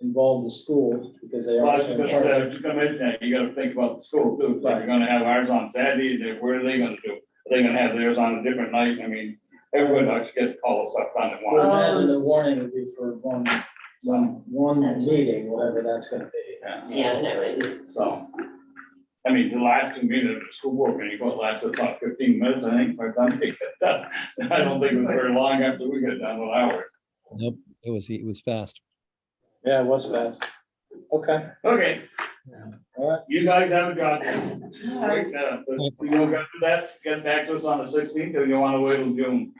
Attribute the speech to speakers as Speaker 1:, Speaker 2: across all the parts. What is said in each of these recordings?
Speaker 1: involve the school because they
Speaker 2: Well,
Speaker 1: are.
Speaker 2: I was just gonna say, I was just gonna mention that, you gotta think about the school too, if they're gonna have ours on Saturday, then what are they gonna do? Are they gonna have theirs on a different night? I mean, everyone likes to get all the stuff done at
Speaker 1: I would
Speaker 2: once.
Speaker 1: imagine the warning would be for one, one, one meeting, whatever that's gonna be.
Speaker 3: Yeah, no, it-
Speaker 2: So, I mean, the last convening of the school board meeting, what lasted about fifteen minutes, I think, by the time they got done. I don't think it was very long after we got done with ours.
Speaker 4: Nope, it was, it was fast.
Speaker 1: Yeah, it was fast. Okay,
Speaker 2: Okay,
Speaker 1: all right.
Speaker 2: you guys have a job. Break that up. But You gonna go through that, get back to us on the sixteenth, or you wanna wait till June?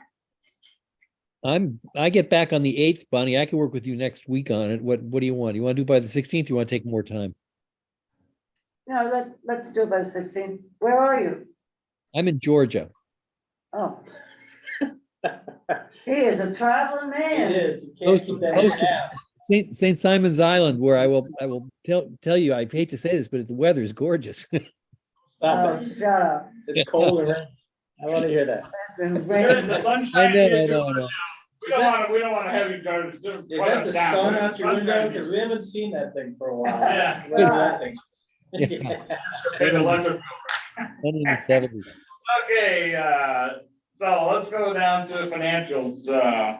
Speaker 4: I'm, I get back on the eighth, Bonnie. I can work with you next week on it. What, what do you want? You want to do by the sixteenth? You want to take more time?
Speaker 5: No, let, let's do by sixteen. Where are you?
Speaker 4: I'm in Georgia.
Speaker 5: Oh. He is a traveling
Speaker 1: It
Speaker 5: man.
Speaker 1: is, you can't
Speaker 4: Close
Speaker 1: keep
Speaker 4: to-
Speaker 1: that
Speaker 4: close to-
Speaker 1: down.
Speaker 4: Saint, Saint Simon's Island, where I will, I will tell, tell you, I hate to say this, but the weather is gorgeous.
Speaker 1: Stop
Speaker 5: Oh,
Speaker 1: it.
Speaker 5: shut up.
Speaker 1: It's cold around. I want to hear that.
Speaker 5: It's been
Speaker 2: There's the
Speaker 5: raining.
Speaker 4: I
Speaker 2: sunshine.
Speaker 4: know, I
Speaker 2: District.
Speaker 4: know, I know.
Speaker 2: We don't wanna, we don't wanna have you guys.
Speaker 1: Is that the sun out your window? Because we haven't seen that thing for a while.
Speaker 2: Yeah.
Speaker 1: Look at that thing.
Speaker 4: Yeah.
Speaker 2: Electric
Speaker 4: One in the seventies.
Speaker 2: Okay, uh, so let's go down to financials, uh,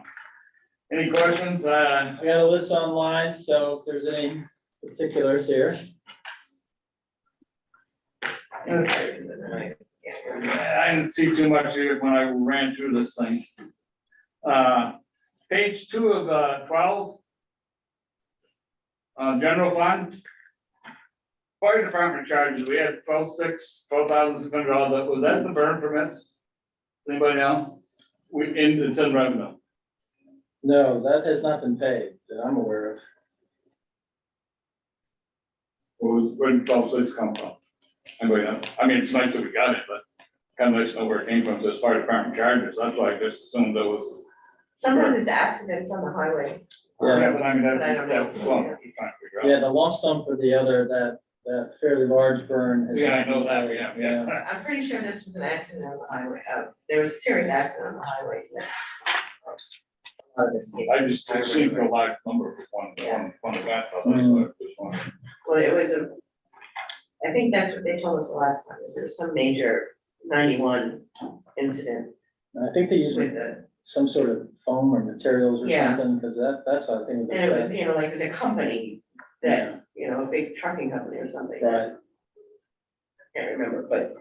Speaker 2: any questions, uh,
Speaker 1: I got a list online, so if there's any particulars here.
Speaker 2: okay. I didn't see too much here when I ran through this thing. Uh, page two of, uh, twelve. Uh, general fund. Fire department charges, we had twelve six, twelve thousand six hundred dollars, was that the burn permits? Anybody know? We, in, it's in revenue.
Speaker 1: No, that has not been paid that I'm aware of.
Speaker 2: Where was- Where did twelve six come from? I'm going, uh, I mean, it's nice that we got it, but kind of nice to know where it came from, so as far as department charges, that's why I just assumed that was.
Speaker 3: some of his accidents on the highway.
Speaker 1: Yeah.
Speaker 2: but I mean, that,
Speaker 3: But I don't
Speaker 2: that was
Speaker 3: know.
Speaker 2: one, just trying to figure out.
Speaker 1: Yeah, the lump sum for the other, that, that fairly large burn. has
Speaker 2: Yeah, I
Speaker 1: not
Speaker 2: know
Speaker 1: been
Speaker 2: that,
Speaker 1: paid.
Speaker 2: yeah, yeah.
Speaker 3: I'm pretty sure this was an accident on the highway, uh, there was a serious accident on the highway. yeah. Oh, this year.
Speaker 2: I just assumed a large number of one, one, one event,
Speaker 1: Mm.
Speaker 2: but that's what I just wanted.
Speaker 3: Well, it was a, I think that's what they told us the last time, there was some major ninety-one incident
Speaker 1: And I think they used
Speaker 3: with the,
Speaker 1: some sort of foam or materials or
Speaker 3: Yeah.
Speaker 1: something, because that, that's how I think.
Speaker 3: and it was, you know, like it was a company that, you know, a big trucking company or something.
Speaker 1: Right,
Speaker 3: Can't remember, but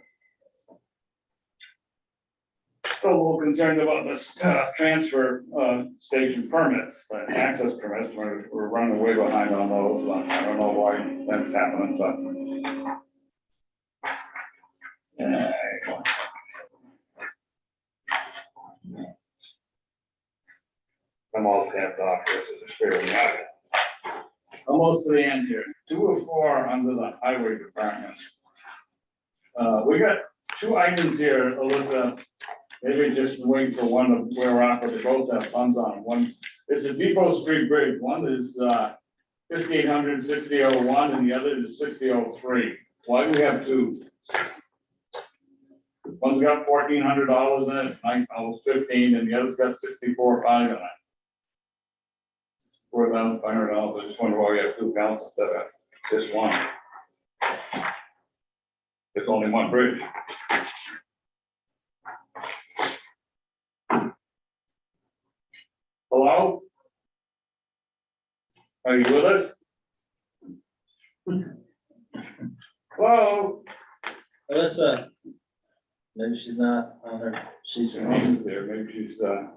Speaker 2: Still a little concerned about this uh, transfer uh, station permits, uh, access permits, we're, we're running way behind on those, but I don't know why that's happening, but. Uh, I'm all tapped off here, so just figure it out. Almost to the end here, two or four under the highway department. Uh, we got two items here, Alyssa, Maybe just wait for one of where we're at with the both have funds on one. It's a Depot Street Bridge. One is uh fifteen hundred sixty oh one and the other is sixty oh three. Why do we have two? One's got fourteen hundred dollars in it, nine, oh, fifteen, and the other's got sixty-four five in it. Four thousand five hundred dollars. I just wonder why we have two accounts instead of just one. It's only one bridge. Hello? Are you with us? Hello?
Speaker 1: Alyssa. Maybe she's not on her, she's, yeah,
Speaker 2: She's There, maybe she's, uh.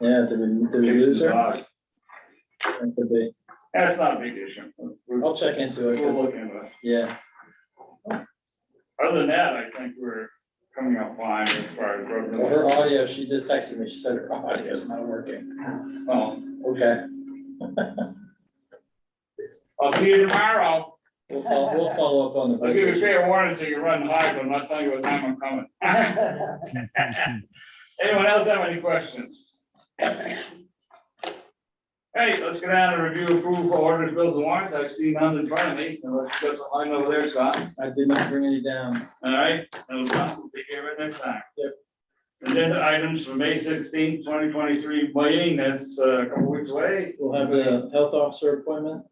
Speaker 1: did we, did we lose her? That could be.
Speaker 2: That's not a big issue. We're-
Speaker 1: I'll check into it,
Speaker 2: We'll
Speaker 1: 'cause-
Speaker 2: look into it.
Speaker 1: yeah,
Speaker 2: Other than that, I think we're coming up fine as far as.
Speaker 1: Well, her
Speaker 2: road-
Speaker 1: audio, she just texted me, she said her audio's not working.
Speaker 2: Oh,
Speaker 1: Okay,
Speaker 2: I'll see you tomorrow.
Speaker 1: we'll follow, we'll follow up on the
Speaker 2: I'll give you
Speaker 1: budget.
Speaker 2: fair warning so you run high, but I'm not telling you what time I'm coming. Anyone else have any questions? Hey, let's go down and review approval orders, bills and warrants. I've seen none in front of me. Unless you got some line over there, Scott.
Speaker 1: I did not bring any down.
Speaker 2: All right, and we'll take care of it next time.
Speaker 1: Yep.
Speaker 2: Agenda items for May 16th, 2023 meeting. That's uh, a couple weeks away.
Speaker 1: We'll have a health officer appointment
Speaker 2: Uh,